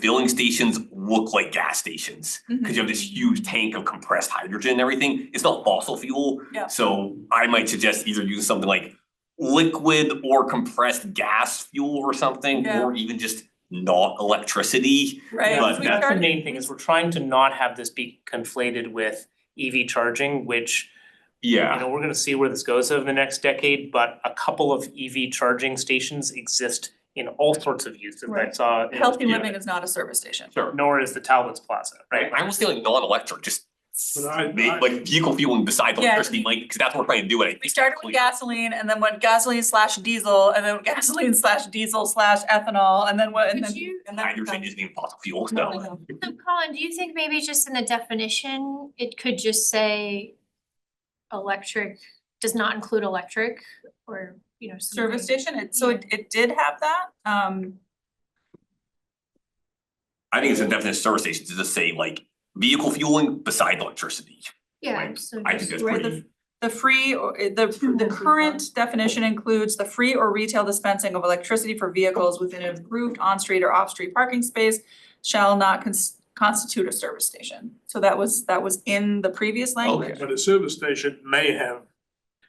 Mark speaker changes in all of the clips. Speaker 1: filling stations look like gas stations.
Speaker 2: Mm-hmm.
Speaker 1: Cause you have this huge tank of compressed hydrogen and everything. It's not fossil fuel.
Speaker 2: Yeah.
Speaker 1: So I might suggest either using something like liquid or compressed gas fuel or something,
Speaker 2: Yeah.
Speaker 1: or even just not electricity.
Speaker 2: Right,
Speaker 1: But
Speaker 2: if we
Speaker 1: that's
Speaker 3: That's the
Speaker 2: start-
Speaker 3: main thing is we're trying to not have this be conflated with EV charging, which, you
Speaker 1: Yeah,
Speaker 3: know, we're gonna see where this goes over the next decade, but a couple of EV charging stations exist in all sorts of uses. I
Speaker 2: Right.
Speaker 3: saw. in-
Speaker 2: healthy living is not a service station.
Speaker 1: sure.
Speaker 3: Nor is the Talbot's Plaza,
Speaker 1: Right,
Speaker 3: right?
Speaker 1: I was feeling non-electric, just
Speaker 4: But I-
Speaker 1: make-
Speaker 4: I-
Speaker 1: like vehicle fueling besides
Speaker 2: Yeah.
Speaker 1: electricity, like, cause that's what we're trying to do. and I
Speaker 2: We
Speaker 1: think
Speaker 2: started with gasoline and then went gasoline slash diesel and then gasoline slash diesel slash ethanol and then what and then.
Speaker 5: Could you-
Speaker 2: and then-
Speaker 1: Hydrogen isn't even fossil fuel,
Speaker 2: No,
Speaker 1: so.
Speaker 2: no.
Speaker 5: So Colin, do you think maybe just in the definition, it could just say electric, does not include electric or, you know,
Speaker 2: Service
Speaker 5: something?
Speaker 2: station, it so it it did have that, um,
Speaker 1: I think it's a definite service station to just say like vehicle fueling beside electricity.
Speaker 5: Yeah,
Speaker 1: Like,
Speaker 5: so
Speaker 1: I think
Speaker 5: just,
Speaker 1: that's
Speaker 2: Where the-
Speaker 1: pretty,
Speaker 2: the free or eh, the the current definition includes the free or retail dispensing of electricity for vehicles within an approved on-street or off-street parking space shall not cons- constitute a service station. So that was that was in the previous language.
Speaker 4: But a service station may have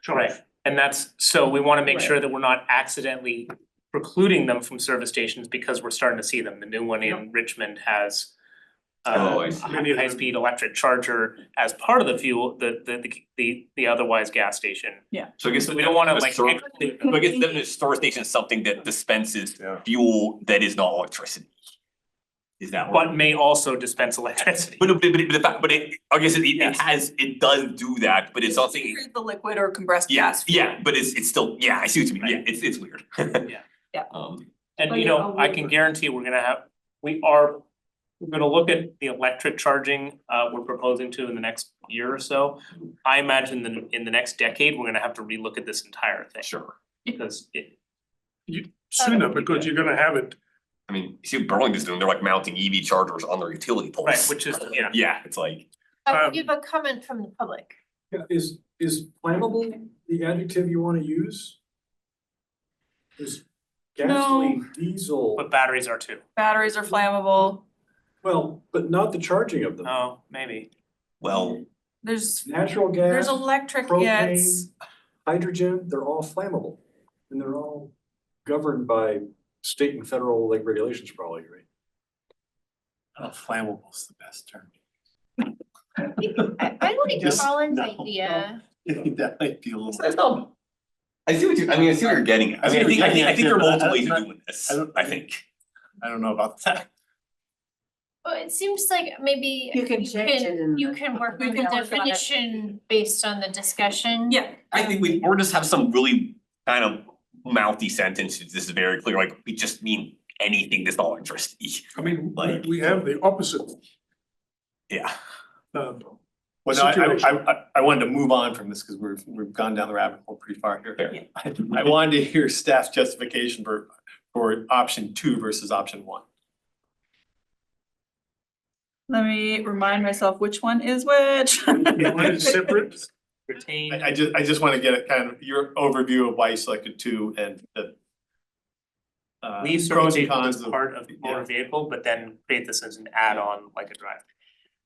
Speaker 4: charge.
Speaker 3: Right. And that's, so we wanna make sure that we're not accidentally precluding them from service stations because we're starting to see them. The new one in Richmond has
Speaker 1: Oh, I
Speaker 3: uh,
Speaker 1: see.
Speaker 3: a high speed electric charger as part of the fuel, the the the the otherwise gas station.
Speaker 1: so I guess.
Speaker 3: So we don't wanna
Speaker 1: a
Speaker 3: like.
Speaker 1: ser-
Speaker 3: exclude them.
Speaker 1: So I guess definite service station is something that dispenses
Speaker 4: Yeah.
Speaker 1: fuel that is not electricity. Is that
Speaker 3: But
Speaker 1: what?
Speaker 3: may also dispense electricity.
Speaker 1: But but but but the fact, but it, I guess it it
Speaker 3: Yes.
Speaker 1: has, it does do that, but it's something,
Speaker 2: The liquid or compressed
Speaker 1: yeah,
Speaker 2: gas.
Speaker 1: yeah, but it's it's still, yeah, I see what you mean, yeah,
Speaker 3: Right.
Speaker 1: it's it's weird.
Speaker 3: Yeah.
Speaker 2: Yeah.
Speaker 1: Um,
Speaker 3: And
Speaker 5: But
Speaker 3: you
Speaker 5: yeah,
Speaker 3: know,
Speaker 5: I'll
Speaker 3: I
Speaker 5: look
Speaker 3: can
Speaker 5: at-
Speaker 3: guarantee we're gonna have, we are, we're gonna look at the electric charging uh we're proposing to in the next year or so. I imagine that in the next decade, we're gonna have to relook at this entire thing
Speaker 1: sure,
Speaker 3: because it,
Speaker 4: Sooner, because you're gonna have it,
Speaker 1: I mean, you see what Burlington's doing, they're like mounting EV chargers on their utility poles.
Speaker 3: right, which is, yeah.
Speaker 1: Yeah, it's like,
Speaker 5: uh,
Speaker 4: um,
Speaker 5: you have a comment from the public.
Speaker 6: Yeah, is, is flammable the adjective you wanna use? Is gasoline, diesel,
Speaker 3: But batteries are too.
Speaker 2: Batteries are flammable,
Speaker 6: well, but not the charging of them.
Speaker 3: Oh, maybe.
Speaker 1: well,
Speaker 2: there's
Speaker 6: Natural
Speaker 2: there's
Speaker 6: gas,
Speaker 2: electric, yeah, it's,
Speaker 6: propane, hydrogen, they're all flammable. And they're all governed by state and federal like regulations probably, right?
Speaker 4: flammable's the best term.
Speaker 5: I think- I I like
Speaker 4: Just-
Speaker 5: Colin's
Speaker 4: no, no.
Speaker 5: idea.
Speaker 4: I think that might be a little.
Speaker 1: it's not. I see what you, I mean, I see what you're getting at, I
Speaker 4: I see
Speaker 1: mean, I
Speaker 4: what
Speaker 1: think,
Speaker 4: you're
Speaker 1: I think, I
Speaker 4: getting
Speaker 1: think
Speaker 4: at,
Speaker 1: there are
Speaker 4: but I-
Speaker 1: multiple
Speaker 4: I-
Speaker 1: ways
Speaker 4: I-
Speaker 1: of doing this,
Speaker 4: I don't-
Speaker 1: I think.
Speaker 4: I don't know about that.
Speaker 5: Well, it seems like maybe
Speaker 7: You can
Speaker 5: you
Speaker 7: change it in
Speaker 5: can, you
Speaker 7: the-
Speaker 5: can work
Speaker 2: We
Speaker 5: with the
Speaker 2: can work on it.
Speaker 5: definition based on the discussion.
Speaker 2: yeah,
Speaker 1: I think we, or just have some really kind of mouthy sentences, this is very clear, like, we just mean anything that's not electricity,
Speaker 4: I mean, we-
Speaker 1: Like-
Speaker 4: we have the opposite,
Speaker 1: yeah.
Speaker 4: um,
Speaker 8: Well, no, I-
Speaker 4: situation.
Speaker 8: I I I I wanted to move on from this because we've we've gone down the rabbit hole pretty far here.
Speaker 1: Fair.
Speaker 2: Yeah.
Speaker 8: I I wanted to hear staff's justification for for option two versus option one.
Speaker 2: let me remind myself which one is which.
Speaker 4: You want it separate,
Speaker 3: Retain.
Speaker 8: I I just I just want to get a kind of your overview of why you selected two and the uh
Speaker 3: Leave service
Speaker 8: pros and
Speaker 3: station
Speaker 8: cons
Speaker 3: as
Speaker 8: of.
Speaker 3: part of motor
Speaker 8: yeah.
Speaker 3: vehicle, but then create this as an add-on like a drive.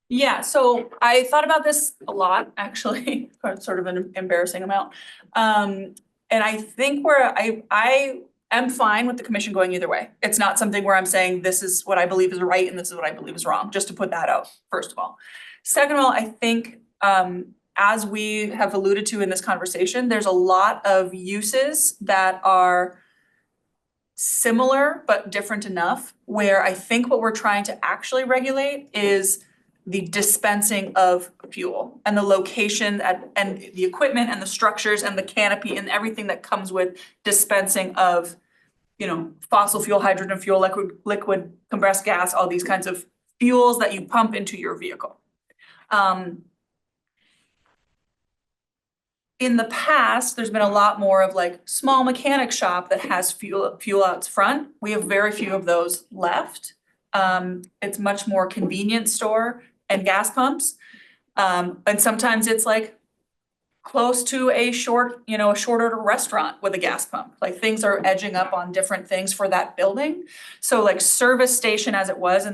Speaker 2: Yeah, so I thought about this a lot, actually, or sort of an embarrassing amount. Um, and I think where I, I am fine with the commission going either way. It's not something where I'm saying this is what I believe is right and this is what I believe is wrong, just to put that out, first of all. Second of all, I think, um, as we have alluded to in this conversation, there's a lot of uses that are similar but different enough, where I think what we're trying to actually regulate is the dispensing of fuel and the location at and the equipment and the structures and the canopy and everything that comes with dispensing of you know, fossil fuel, hydrogen fuel, liquid liquid compressed gas, all these kinds of fuels that you pump into your vehicle. Um in the past, there's been a lot more of like small mechanic shop that has fuel fuel outs front. We have very few of those left. Um it's much more convenience store and gas pumps. Um, and sometimes it's like close to a short, you know, a short order restaurant with a gas pump. Like things are edging up on different things for that building. So like service station as it was in the